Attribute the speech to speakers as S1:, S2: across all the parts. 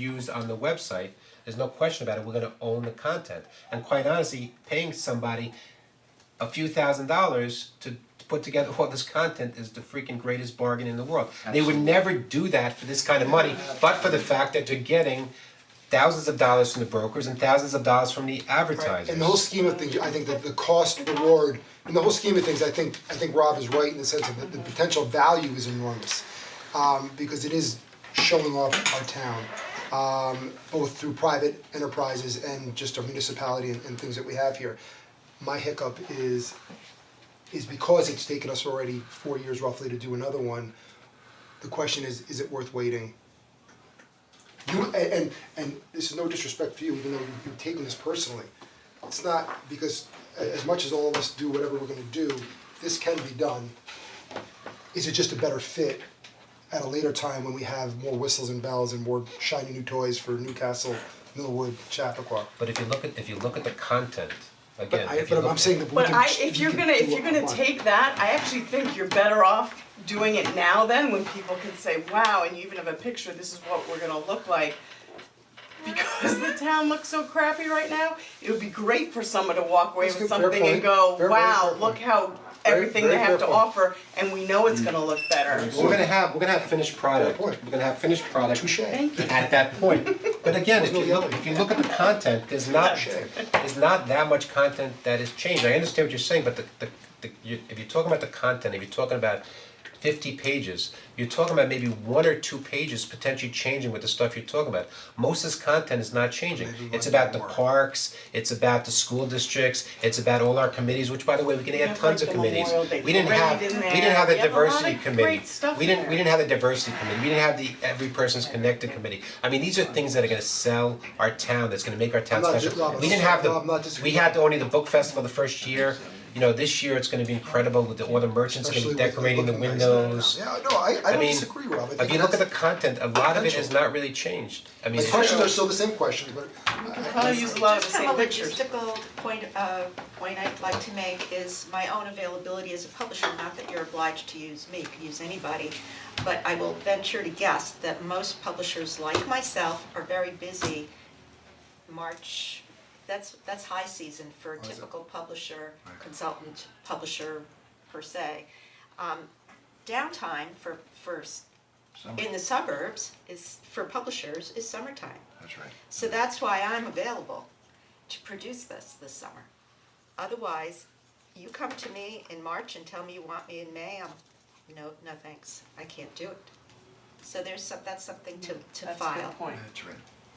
S1: used on the website, there's no question about it, we're gonna own the content. And quite honestly, paying somebody a few thousand dollars to to put together all this content is the freaking greatest bargain in the world. They would never do that for this kind of money, but for the fact that they're getting thousands of dollars from the brokers and thousands of dollars from the advertisers.
S2: In the whole scheme of things, I think that the cost reward, in the whole scheme of things, I think, I think Rob is right in the sense that the potential value is enormous. Um, because it is showing off our town, um, both through private enterprises and just our municipality and, and things that we have here. My hiccup is, is because it's taken us already four years roughly to do another one, the question is, is it worth waiting? You, and, and, and this is no disrespect to you, even though you- you've taken this personally. It's not, because a- as much as all of us do whatever we're gonna do, this can be done. Is it just a better fit at a later time when we have more whistles and bells and more shiny new toys for Newcastle, Millwood, Chappaqua?
S1: But if you look at, if you look at the content, again,
S2: But I,
S1: if you
S2: but
S1: look
S2: I'm
S1: at-
S2: saying that we
S3: But
S2: can-
S3: I,
S2: we
S3: if you're
S2: can
S3: gonna,
S2: do
S3: if
S2: what
S3: you're
S2: we
S3: gonna
S2: want.
S3: take that, I actually think you're better off doing it now then, when people can say, wow, and you even have a picture, this is what we're gonna look like. Because the town looks so crappy right now, it would be great for someone to walk away
S2: That's
S3: with
S2: good, fair
S3: something and
S2: point.
S3: go,
S2: Fair, very fair
S3: wow, look
S2: point.
S3: how
S2: Very-
S3: everything they
S2: very
S3: have
S2: fair
S3: to
S2: point.
S3: offer, and we know it's gonna look better.
S1: We're gonna have, we're gonna have finished product,
S2: Fair
S1: we're
S2: point.
S1: gonna have finished product
S2: Touche. Thank
S1: at that point. But again, if
S2: There's no
S1: you, look-
S2: yelling.
S1: if you look at the content, there's not, there's not that much content that is changed, I understand what you're saying, but the, the, the, you, if you're talking about the content, if you're talking about fifty pages, you're talking about maybe one or two pages potentially changing with the stuff you're talking about. Most of this content is not changing, it's about the parks, it's about the school districts, it's about all our committees, which by the way, we can
S3: We
S1: add
S3: have,
S1: tons of
S3: like, the
S1: committees.
S3: Memorial Day
S1: We didn't
S3: parade
S1: have, we
S3: in
S1: didn't
S3: there.
S1: have
S3: We
S1: the
S3: have a lot of
S1: diversity committee,
S3: great stuff
S1: we didn't,
S3: in
S1: we didn't have the diversity committee, we didn't have the every person's connected committee. I mean, these are things that are gonna sell our town, that's gonna make our town
S2: I'm not dis-
S1: special.
S2: Rob,
S1: We didn't have
S2: Rob, I'm not
S1: the, we
S2: disagreeing.
S1: had only the book festival the first year, you know, this year it's gonna be incredible with the, all the merchants are gonna
S2: Especially
S1: be
S2: with
S1: decorating
S2: it
S1: the
S2: looking nice.
S1: windows.
S2: Yeah, no, I, I don't
S1: mean,
S2: disagree, Rob, I think
S1: If you look at
S2: that's-
S1: the content, a lot of it has
S2: potential.
S1: not really changed, I mean.
S2: The questions are still the same questions, but I- I-
S3: Probably use a lot of the same pictures.
S4: Just from a logistical point, uh, point I'd like to make is my own availability as a publisher, not that you're obliged to use me, you could use anybody. But I will venture to guess that most publishers like myself are very busy March, that's, that's high season for a typical publisher, consultant, publisher per se. Um, Downtime for, for, s- in the suburbs is, for publishers, is summertime.
S5: That's right.
S4: So that's why I'm available to produce this this summer. Otherwise, you come to me in March and tell me you want me in May, I'm, no, no thanks, I can't do it. So there's some, that's something to, to
S3: Mm, That's a
S4: file.
S3: good point.
S5: That's right.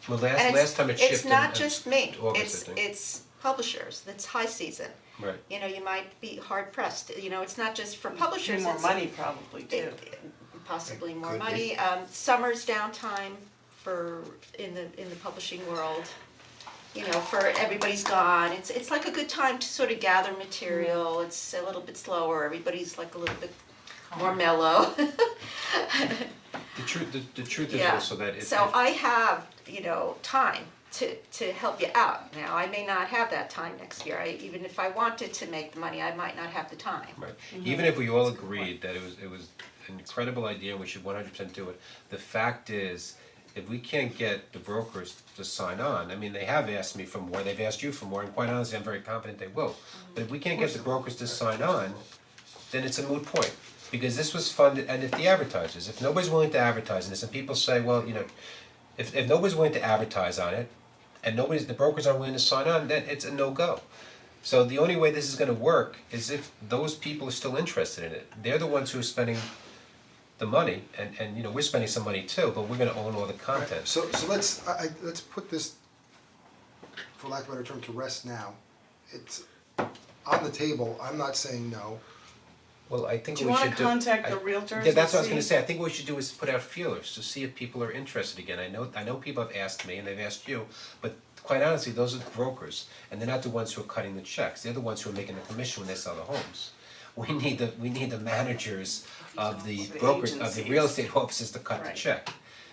S1: Well, last,
S4: And
S1: last time it shifted.
S4: It's not
S1: in
S4: just me,
S1: August,
S4: it's,
S1: I think.
S4: it's publishers, it's high season.
S1: Right.
S4: You know, you might be hard pressed, you know, it's not just for publishers,
S3: more
S4: it's-
S3: money probably too.
S4: it- possibly more
S5: Could be.
S4: money. Um, summer's downtime for, in the, in the publishing world. You know, for everybody's gone, it's, it's like a good time to sort of gather material, it's a little bit slower, everybody's like a little bit more mellow.
S1: The truth, the, the truth is
S4: Yeah,
S1: also that it's.
S4: so I have, you know, time to, to help you out now, I may not have that time next year, I, even if I wanted to make the money, I might not have the time.
S1: Right, even if we all agreed that it was, it was an incredible idea and we should one hundred percent do it, the fact is, if we can't get the brokers to sign on, I mean, they have asked me for more, they've asked you for more, and quite honestly, I'm very confident they will. But if we can't get the brokers to sign on, then it's a moot point. Because this was funded, and if the advertisers, if nobody's willing to advertise in this, and people say, well, you know, if if nobody's willing to advertise on it, and nobody's, the brokers aren't willing to sign on, then it's a no-go. So the only way this is gonna work is if those people are still interested in it. They're the ones who are spending the money, and and you know, we're spending some money too, but we're gonna own all the content.
S2: so, so let's, I, I, let's put this, for lack of a better term, to rest now. It's on the table, I'm not saying no.
S1: Well, I think
S3: Do you
S1: what we
S3: wanna
S1: should do.
S3: contact the
S1: I-
S3: realtors
S1: Yeah, that's what I was
S3: and
S1: gonna
S3: see?
S1: say, I think what we should do is put out feelers to see if people are interested again, I know, I know people have asked me and they've asked you, but quite honestly, those are the brokers, and they're not the ones who are cutting the checks, they're the ones who are making the commission when they sell the homes. We need the, we need the managers of the
S3: The
S1: brokers, of the real
S3: agencies.
S1: estate offices to cut the
S3: Right.
S1: check.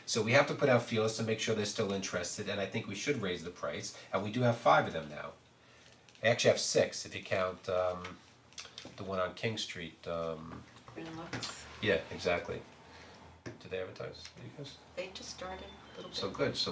S1: So we have to put out feelers to make sure they're still interested, and I think we should raise the price, and we do have five of them now. I actually have six, if you count um the one on King Street, um yeah, exactly. Do they advertise, you guys?
S4: They just started a little bit.
S1: So good, so